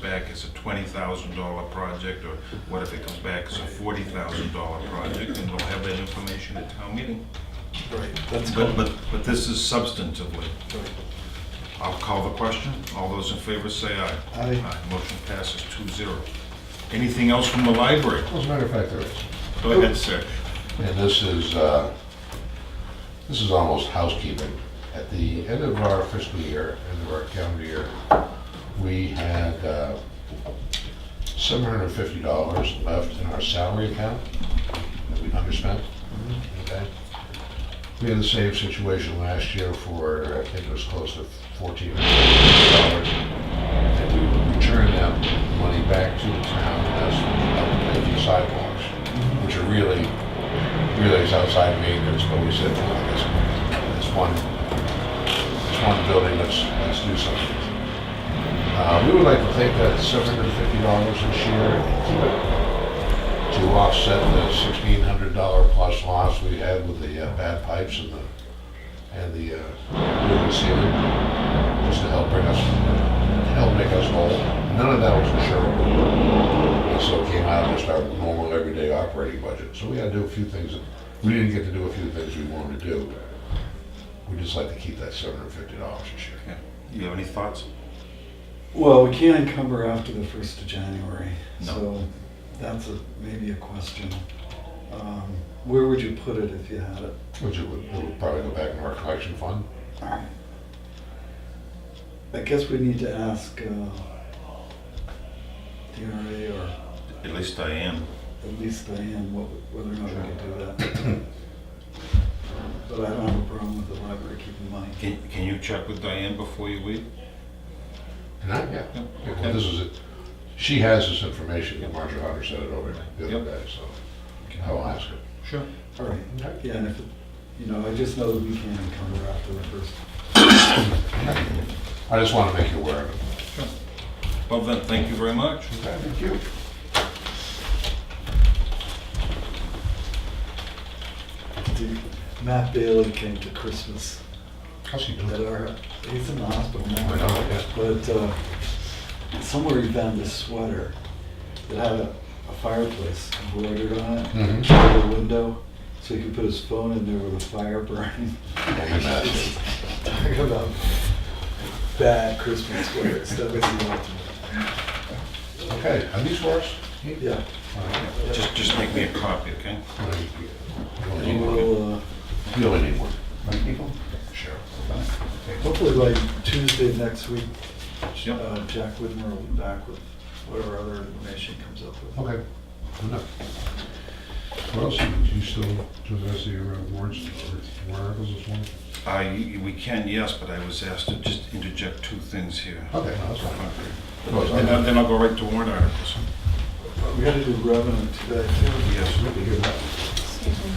back as a twenty thousand dollar project, or what if it comes back as a forty thousand dollar project, and we'll have that information at town meeting. Right, that's But, called, but, but this is substantively. right. I'll call the question. All those in favor say aye. Aye. Motion passes two zero. Anything else from the library? Well, As a matter of fact, there is. Go ahead, sir. And this is, uh, this is almost housekeeping. At the end of our fiscal year, end of our calendar year, we had uh, $750 left in our salary account that we underspent. Okay. We had the same situation last year for, I think it was close to $1,400. And we returned that money back to the town as upgrade sidewalks, which are really relays outside maintenance, but we said, well, this, this one, this one building, let's, let's do something. Uh, we would like to take that seven hundred and fifty dollars this year and keep it to offset the sixteen hundred dollar plus loss we had with the uh, bad pipes and the, and the, uh, roof and ceiling, just to help bring us, help make us whole. None of that was insurable. And so it came out of just our normal everyday operating budget. So we had to do a few things, that we didn't get to do a few things we wanted to do. We'd just like to keep that seven hundred fifty dollars this year. Yeah. You have any thoughts? Well, we can't encumber after the first of January, No. so that's a, maybe a question. Um, Where would you put it if you had it? Which it would, it would probably go back into our collection fund. I guess we need to ask uh, DRA or At least I am. at least Diane what- whether or not we can do that. But I don't have a problem with the library keeping money. Can, can you check with Diane before you leave? And I, yeah, Yeah, yeah, okay. well, this is it. She has this information, Marcia Hunter sent it over the Yep. other day, so I will ask her. Sure. All right, Okay. yeah, and if, it- you know, I just know that we can't encumber after the first I just want to make you aware of it. Well then, thank you very much. Thank you. Dude, Matt Bailey came to Christmas How's he at doing? our, he's in the hospital I know, now, yeah. but uh, somewhere he found this sweater that had a, a fireplace embroidered on it, Mhm. over the window, so he could put his phone in there with a fire burning. Only Matt. Talking about bad Christmas sweaters, that was the ultimate. Okay, are these for us? Yeah, All right. Just, just make me a copy, okay? and You we'll, uh, only need one. Right, people? Sure. hopefully by Tuesday next week, Yep. uh, Jack Widmer will be back with whatever other information comes up with. Okay, good enough. What else, do you still, do the rest of your uh, warrants or warrant articles this morning? I, we can, yes, but I was asked to just interject two things here. Okay, no, that's fine. Okay. No, it's Then I'll- not- then I'll go right to warrant articles. We gotta do revenue today too. Yes. we can hear that. Excuse me,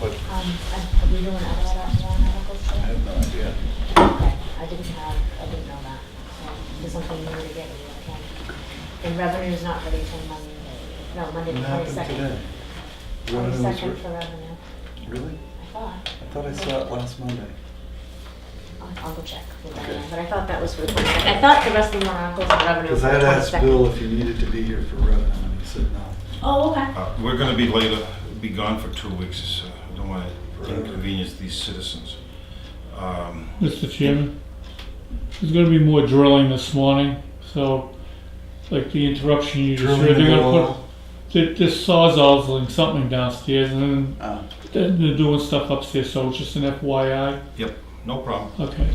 But um, I- are we doing other warrant articles I today? have no idea. Okay, I didn't have, I didn't know that, so there's something new to get, okay? And revenue is not ready until Monday, no, Monday What the happened today? twenty-second. Revenue was Twenty-second re- for revenue, Really? I thought, I thought I saw it last Monday. I'll, I'll go check with Okay. Diane, but I thought that was for the twenty-second, I thought the rest of the warrant articles and revenue Because was for I the had asked twenty-second. Bill if he needed to be here for revenue and he said no. Oh, okay, Uh, We're gonna be later, be gone for two weeks, so I don't wanna inconvenience these citizens. Um, Mr. Chairman, there's gonna be more drilling this morning, so, like the interruption you just heard, they're gonna put, they- this sawzall's something downstairs, and then Oh, they're- they're doing stuff upstairs, so it's just an FYI, Yep, no problem. okay.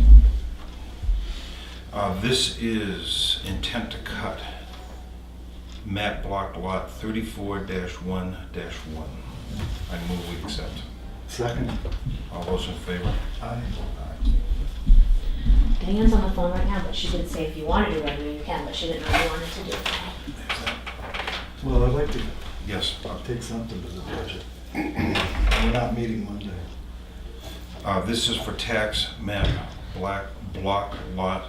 Uh, This is intent to cut. Map block lot thirty-four one one. I move we accept. second. All those in favor? Aye. Diane's on the phone right now, but she did say if you wanna do revenue, you can, but she didn't know you wanted to do it. Well, I'd like to Yes. take something to the budget. We're not meeting Monday. Uh, This is for tax map black block lot,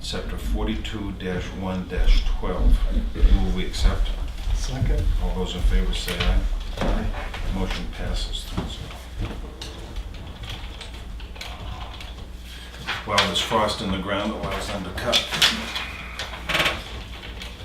sector forty-two one twelve. Move we accept. Second? All those in favor say aye. Aye. Motion passes three zero. While there's frost in the ground, it allows them to cut.